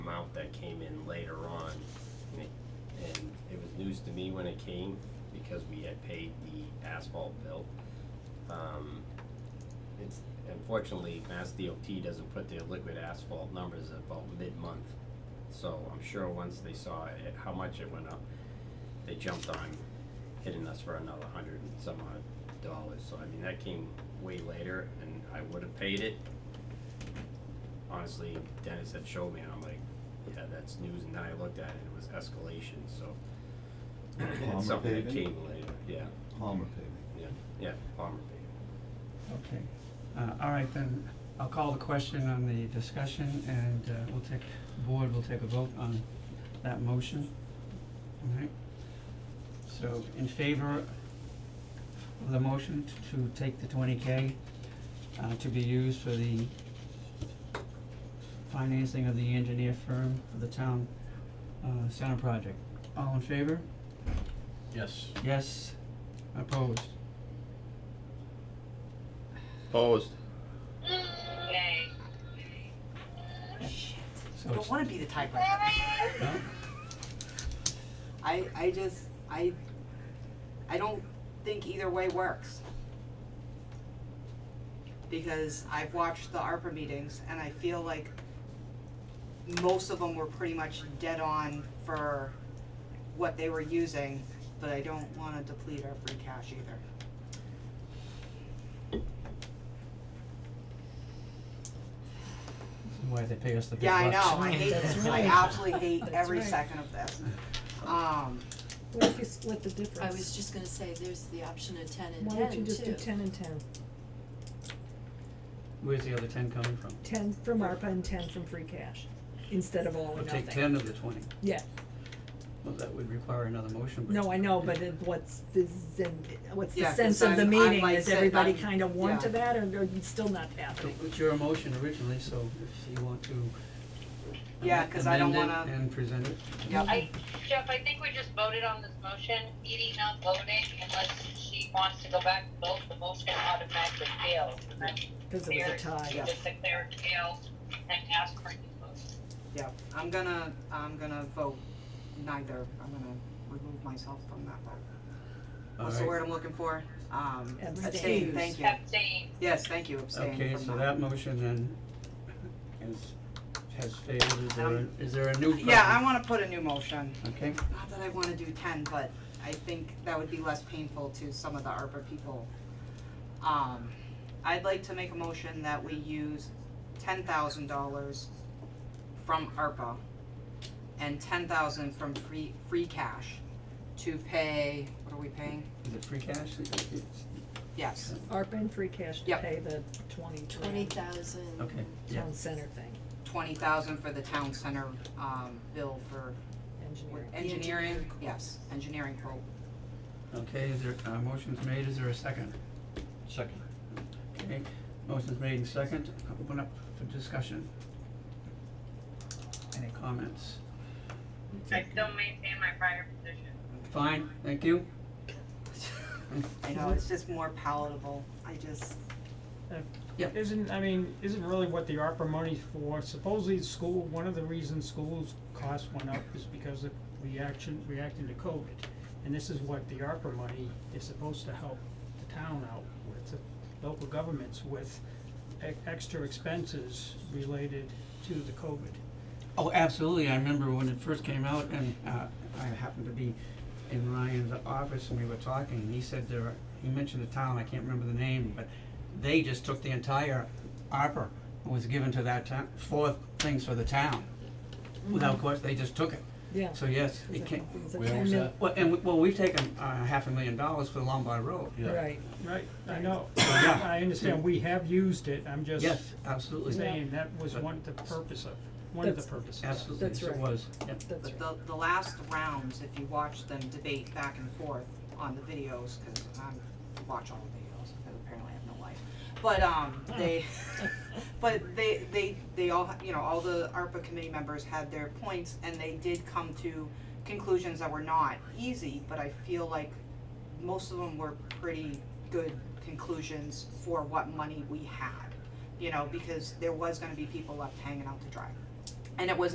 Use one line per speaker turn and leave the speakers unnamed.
to me when it came, because we had paid the asphalt bill. Um, it's, unfortunately, Mass DOT doesn't put their liquid asphalt numbers about mid-month. So I'm sure once they saw it, how much it went up, they jumped on hitting us for another hundred and some odd dollars. So I mean, that came way later and I would have paid it. Honestly, Dennis had showed me and I'm like, yeah, that's news and then I looked at it, it was escalation, so.
Palmer
It's something that
paving?
came later, yeah,
Palmer paving.
yeah, yeah, Palmer paving.
Okay, uh, all right, then, I'll call the question on the discussion, and, uh, we'll take, board will take a vote on that motion, all right? So, in favor of the motion t- to take the twenty K, uh, to be used for the financing of the engineer firm for the town, uh, center project, all in favor?
Yes.
Yes, opposed?
Opposed.
Yay.
So
Shit. I
it's-
don't wanna be the typewriter.
No?
I, I just, I, I don't think either way works. Because I've watched the ARPA meetings and I feel like most of them were pretty much dead on for what they were using, but I don't wanna deplete our free cash either.
Why they pay us the big
Yeah, I
bucks.
know, I hate this, I absolutely hate
That's
every
right.
second of this. Um,
What if you split the difference?
I was just gonna say, there's the option of ten and ten
Why
too.
don't you just do ten and ten?
Where's the other ten coming from?
Ten from ARPA and ten from free cash, instead of all
Oh,
or
We'll
nothing.
take ten of the twenty.
Yeah,
Well, that would require another motion, but.
no, I know, but it, what's the, zen- what's the
Yeah, 'cause
sense of
I'm-
the
I'm
meeting,
like
is
said,
everybody
I'm-
kind of warm to
yeah.
that, or, or it's still not happening?
It was your motion originally, so if you want to.
Yeah, 'cause I don't
amend it
wanna-
And present it.
yeah,
I, Jeff, I think we just voted on this motion, Edie not voting unless she wants to go back and vote, the motion automatically fails. And then
Cause it was a
Mayor,
tie,
you
yeah.
just declare it fails and ask for a new motion.
Yeah, I'm gonna, I'm gonna vote neither, I'm gonna remove myself from that vote. What's the
Alright.
word I'm looking for? Um, abstain,
Abstain.
thank you.
Abstain.
Yes, thank you, abstain
Okay,
from
so that motion then is, has failed. Is there,
Um,
is there a new?
Yeah, I
motion?
wanna put a new motion,
Okay,
not that I wanna do ten, but I think that would be less painful to some of the ARPA people. Um, I'd like to make a motion that we use ten thousand dollars from ARPA and ten thousand from free, free cash to pay, what are we paying?
is it free cash? It's-
Yes,
ARPA and free cash to
Yep.
pay the twenty to
Twenty thousand.
Okay, yeah,
town center thing,
twenty thousand for the town center, um, bill for
engineering.
engineering, yes, engineering quote.
okay, is there, uh, motion's made, is there a second?
Second.
Okay, motion's made in second, open up for discussion. Any comments?
I still maintain my prior position.
Fine, thank you.
I know, it's just more palatable, Mhm. I just,
Isn't, I mean, isn't really what the ARPA money's for, supposedly the school, one of the reasons schools' costs went up is because of reaction, reacting to COVID. And this is what the ARPA money is supposed to help the town out with, the local governments with e- extra expenses related to the COVID.
Oh, absolutely, I remember when it first came out and, uh, I happened to be in Ryan's office and we were talking, and he said there, are- he mentioned a town, I can't remember the name, but they just took the entire ARPA, was given to that town, four things for the town. Without question, they just took it,
Yeah.
so yes, it can,
It's a
Where
ten
was
mil-
that?
Well, and, we- well, we've taken, uh, half a million dollars for the Lombard Road.
Yeah.
Right,
Right, I know,
Yeah.
I understand, we have used it, I'm just
Yes, absolutely,
saying that was one, of the purpose of, one of the
That's-
purposes.
absolutely,
That's
yes, it
right.
was, Yep.
that's right.
but the, the last rounds, if you watch them debate back and forth on the videos, cause I'm, watch all the videos, because apparently I have no life. But, um, they, but they, they, they all, ha- you know, all the ARPA committee members had their points, and they did come to conclusions that were not easy, but I feel like most of them were pretty good conclusions for what money we had. You know, because there was gonna be people left hanging out to dry. And it was